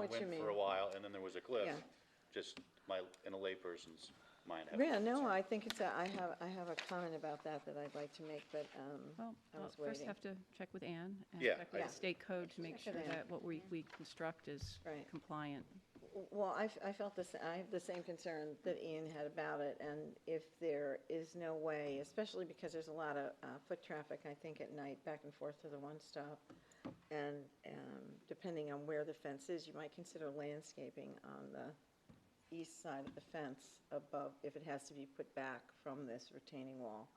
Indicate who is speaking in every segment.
Speaker 1: what you
Speaker 2: went for a
Speaker 1: mean.
Speaker 2: while, and then there was a cliff.
Speaker 1: Yeah.
Speaker 2: Just my, in a layperson's mind. I have
Speaker 1: Yeah,
Speaker 2: a
Speaker 1: no,
Speaker 2: concern.
Speaker 1: I think it's, a- I have, I have a comment about that that I'd like to make, but um,
Speaker 3: Well,
Speaker 1: I
Speaker 3: well,
Speaker 1: was
Speaker 3: first
Speaker 1: waiting.
Speaker 3: have to check with Ann and
Speaker 2: Yeah,
Speaker 3: check with
Speaker 1: I-
Speaker 3: the state code to make
Speaker 1: Check
Speaker 3: sure
Speaker 1: with Ann.
Speaker 3: that what we, we construct is
Speaker 1: Right.
Speaker 3: compliant.
Speaker 1: Well, I, f- I felt this, I have the same concern that Ian had about it, and if there is no way, especially because there's a lot of uh, foot traffic, I think, at night, back and forth to the one-stop, and um, depending on where the fence is, you might consider landscaping on the east side of the fence above, if it has to be put back from this retaining wall,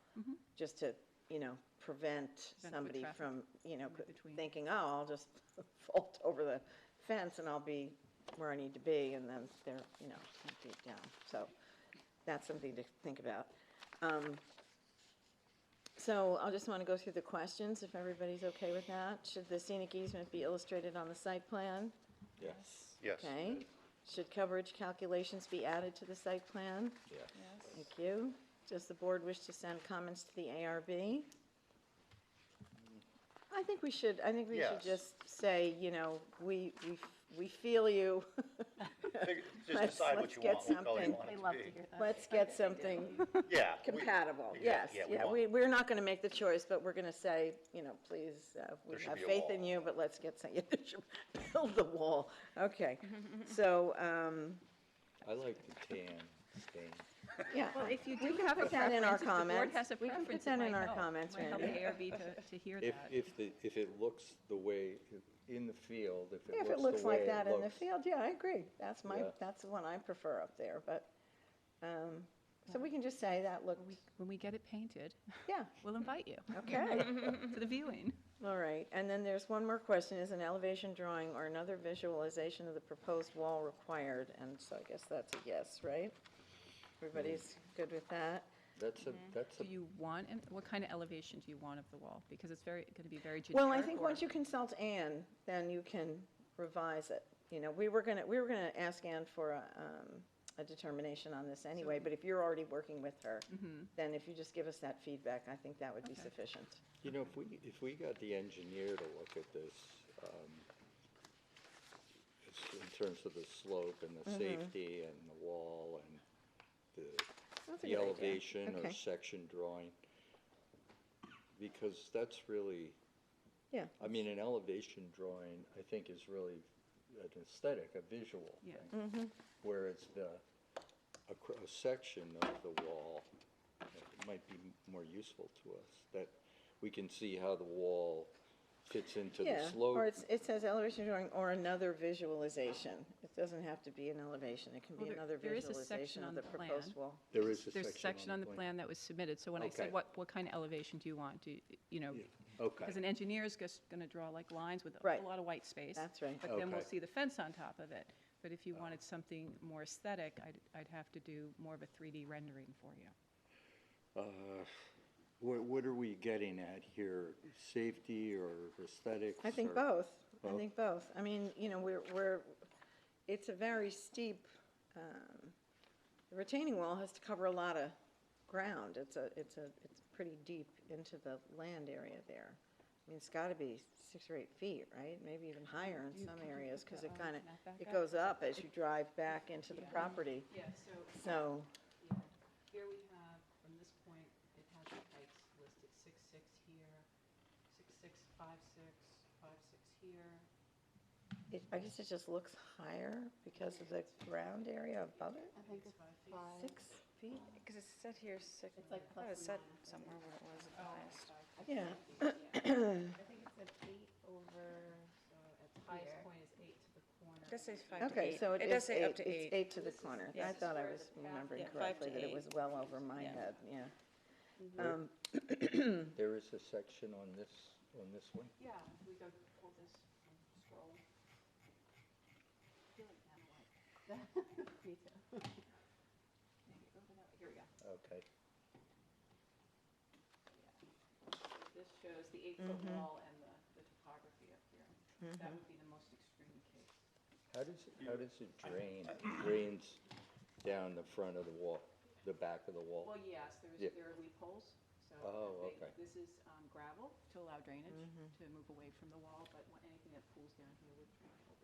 Speaker 1: just to, you know, prevent
Speaker 3: Mm-hmm. foot
Speaker 1: somebody
Speaker 3: traffic
Speaker 1: from, you know,
Speaker 3: in
Speaker 1: could-
Speaker 3: between.
Speaker 1: thinking, oh, I'll just vault over the fence and I'll be where I need to be, and then they're, you know, deep down. So that's something to think about. Um, So I just want to go through the questions, if everybody's okay with that. Should the scenic easement be illustrated on the site plan?
Speaker 4: Yes.
Speaker 2: Yes.
Speaker 1: Okay. Should coverage calculations be added to the site plan?
Speaker 4: Yes.
Speaker 1: Thank you. Does the board wish to send comments to the ARB? I think we should, I think we should
Speaker 2: Yes.
Speaker 1: just say, you know, we, we, we feel you.
Speaker 2: Fig- Just
Speaker 1: Let's-
Speaker 2: decide what
Speaker 1: let's
Speaker 2: you
Speaker 1: get
Speaker 2: want, what color you
Speaker 1: something.
Speaker 2: want it
Speaker 5: They
Speaker 2: to
Speaker 5: love to
Speaker 2: be.
Speaker 5: hear that.
Speaker 1: Let's get something
Speaker 2: Yeah. we-
Speaker 1: compatible,
Speaker 2: yeah,
Speaker 1: yes.
Speaker 2: we
Speaker 1: Yeah,
Speaker 2: want-
Speaker 1: we, we're not going to make the choice, but we're going to say, you know, please, uh,
Speaker 2: There
Speaker 1: we
Speaker 2: should
Speaker 1: have
Speaker 2: be a
Speaker 1: faith in
Speaker 2: wall.
Speaker 1: you, but let's get some, yeah, there should- build the wall. Okay, so, um,
Speaker 4: I like the tan stain.
Speaker 1: yeah.
Speaker 3: Well, if you
Speaker 1: We
Speaker 3: do
Speaker 1: can
Speaker 3: have a
Speaker 1: put that in our
Speaker 3: preference, if the board
Speaker 1: comments.
Speaker 3: has a
Speaker 1: We can put
Speaker 3: preference,
Speaker 1: that
Speaker 3: it might
Speaker 1: in our
Speaker 3: help.
Speaker 1: comments,
Speaker 3: Might help the
Speaker 1: Randy.
Speaker 3: ARB to, to hear
Speaker 4: If,
Speaker 3: that.
Speaker 4: if the, if it looks the way, it- in the field, if it looks
Speaker 1: If
Speaker 4: the way
Speaker 1: it looks like that in the
Speaker 4: looks,
Speaker 1: field, yeah, I agree. That's my,
Speaker 4: Yeah.
Speaker 1: that's the one I prefer up there, but, um, so we can just say that
Speaker 3: When
Speaker 1: looked,
Speaker 3: we- When we get it painted,
Speaker 1: yeah,
Speaker 3: we'll invite you
Speaker 1: okay.
Speaker 3: to the viewing.
Speaker 1: All right, and then there's one more question, is an elevation drawing or another visualization of the proposed wall required? And so I guess that's a yes, right? Everybody's
Speaker 4: Mm.
Speaker 1: good with that?
Speaker 4: That's a, that's
Speaker 3: Mm-hmm. Do
Speaker 4: a,
Speaker 3: you want, and what kind of elevation do you want of the wall? Because it's very, going to be very generic.
Speaker 1: Well, I think
Speaker 3: or-
Speaker 1: once you consult Anne, then you can revise it. You know, we were gonna, we were gonna ask Anne for a, um, a determination on this anyway, but if you're already working with her,
Speaker 3: Mm-hmm.
Speaker 1: then if you just give us that feedback, I think that would be
Speaker 3: Okay.
Speaker 1: sufficient.
Speaker 4: you know, if we, if we got the engineer to look at this, um, it's in terms of the slope and the
Speaker 1: Mm-hmm.
Speaker 4: safety and the wall and the
Speaker 1: That's a good
Speaker 4: the
Speaker 1: idea.
Speaker 4: elevation or
Speaker 1: Okay.
Speaker 4: section drawing, because that's really,
Speaker 1: Yeah,
Speaker 4: I mean, an elevation drawing, I think, is really an aesthetic, a visual
Speaker 3: Yeah.
Speaker 1: Mm-hmm.
Speaker 4: thing. Whereas the, a, cr- a section of the wall uh, might be m- more useful to us, that we can see how the wall fits into the
Speaker 1: yeah. Or
Speaker 4: slope.
Speaker 1: it's, it says elevation drawing or another visualization. It doesn't have to be an elevation, it can
Speaker 3: Well,
Speaker 1: be
Speaker 3: there-
Speaker 1: another
Speaker 3: there is a section
Speaker 1: visualization of
Speaker 3: on
Speaker 1: the
Speaker 3: the plan.
Speaker 1: proposed wall.
Speaker 4: There is a
Speaker 3: There's a section on the plan that was submitted, so when I
Speaker 4: Okay.
Speaker 3: said, what, what kind of elevation do you want? Do, you- you know,
Speaker 4: Yeah, okay.
Speaker 3: because an engineer is just going to draw like lines with a
Speaker 1: Right.
Speaker 3: whole lot of white space.
Speaker 1: That's right.
Speaker 3: But then we'll
Speaker 4: Okay.
Speaker 3: see the fence on top of it. But if you wanted something more aesthetic, I'd, I'd have to do more of a 3D rendering for you.
Speaker 4: Uh, What, what are we getting at here? Safety or aesthetics?
Speaker 1: I think
Speaker 4: or-
Speaker 1: both. I
Speaker 4: Both?
Speaker 1: think both. I mean, you know, we're, we're, it's a very steep, um, the retaining wall has to cover a lot of ground. It's a, it's a, it's pretty deep into the land area there. I mean, it's got to be six or eight feet, right? Maybe even higher in
Speaker 3: You
Speaker 1: some
Speaker 3: can put
Speaker 1: areas, because
Speaker 3: the,
Speaker 1: it
Speaker 3: um,
Speaker 1: kind of,
Speaker 3: map back
Speaker 1: it
Speaker 3: up.
Speaker 1: goes up as you drive back into the property.
Speaker 3: Yeah, so,
Speaker 1: So,
Speaker 6: Yeah, here we have, from this point, it has the heights listed, six, six here, six, six, five, six, five, six here.
Speaker 1: it, I guess it just looks higher because of the ground area above it?
Speaker 5: I think it's
Speaker 6: Five feet.
Speaker 5: five.
Speaker 1: Six feet?
Speaker 7: Because it's set here, six,
Speaker 5: It's like
Speaker 7: I thought it
Speaker 5: plus Oh,
Speaker 7: said
Speaker 5: and minus.
Speaker 7: somewhere where it was at the highest.
Speaker 5: Five
Speaker 1: Yeah.
Speaker 5: feet, yeah. I think it's at eight over,
Speaker 6: So at the
Speaker 5: Here.
Speaker 6: highest point is eight to the corner.
Speaker 7: It does say five to eight.
Speaker 1: Okay, so it
Speaker 7: does
Speaker 1: is
Speaker 7: say up
Speaker 1: eight,
Speaker 7: to
Speaker 1: it's
Speaker 7: eight.
Speaker 1: eight to the
Speaker 6: This is-
Speaker 1: corner.
Speaker 6: Yeah.
Speaker 1: I thought I
Speaker 6: This
Speaker 1: was
Speaker 6: is where the
Speaker 1: remembering
Speaker 7: path- Yeah, five
Speaker 1: correctly
Speaker 7: to
Speaker 1: that it
Speaker 7: eight.
Speaker 1: was well over my
Speaker 7: Yeah.
Speaker 1: head, yeah.
Speaker 4: There-
Speaker 1: Um,
Speaker 4: There is a section on this, on this one?
Speaker 6: Yeah, if we go pull this and scroll. I feel like that a lot. Me too. Maybe over that way. Here we go.
Speaker 4: Okay.
Speaker 6: This shows the eight-foot wall and the, the topography up here. That would be the most extreme case.
Speaker 4: How does, it- how does it drain? It Drains down the front of the wall, the back of the
Speaker 6: Well,
Speaker 4: wall?
Speaker 6: yes, there's,
Speaker 4: Yeah.
Speaker 6: there are leaf holes, so.
Speaker 4: Oh,
Speaker 6: they-
Speaker 4: okay.
Speaker 6: This is um, gravel to allow drainage, to move away from the wall, but when- anything that pools down here would.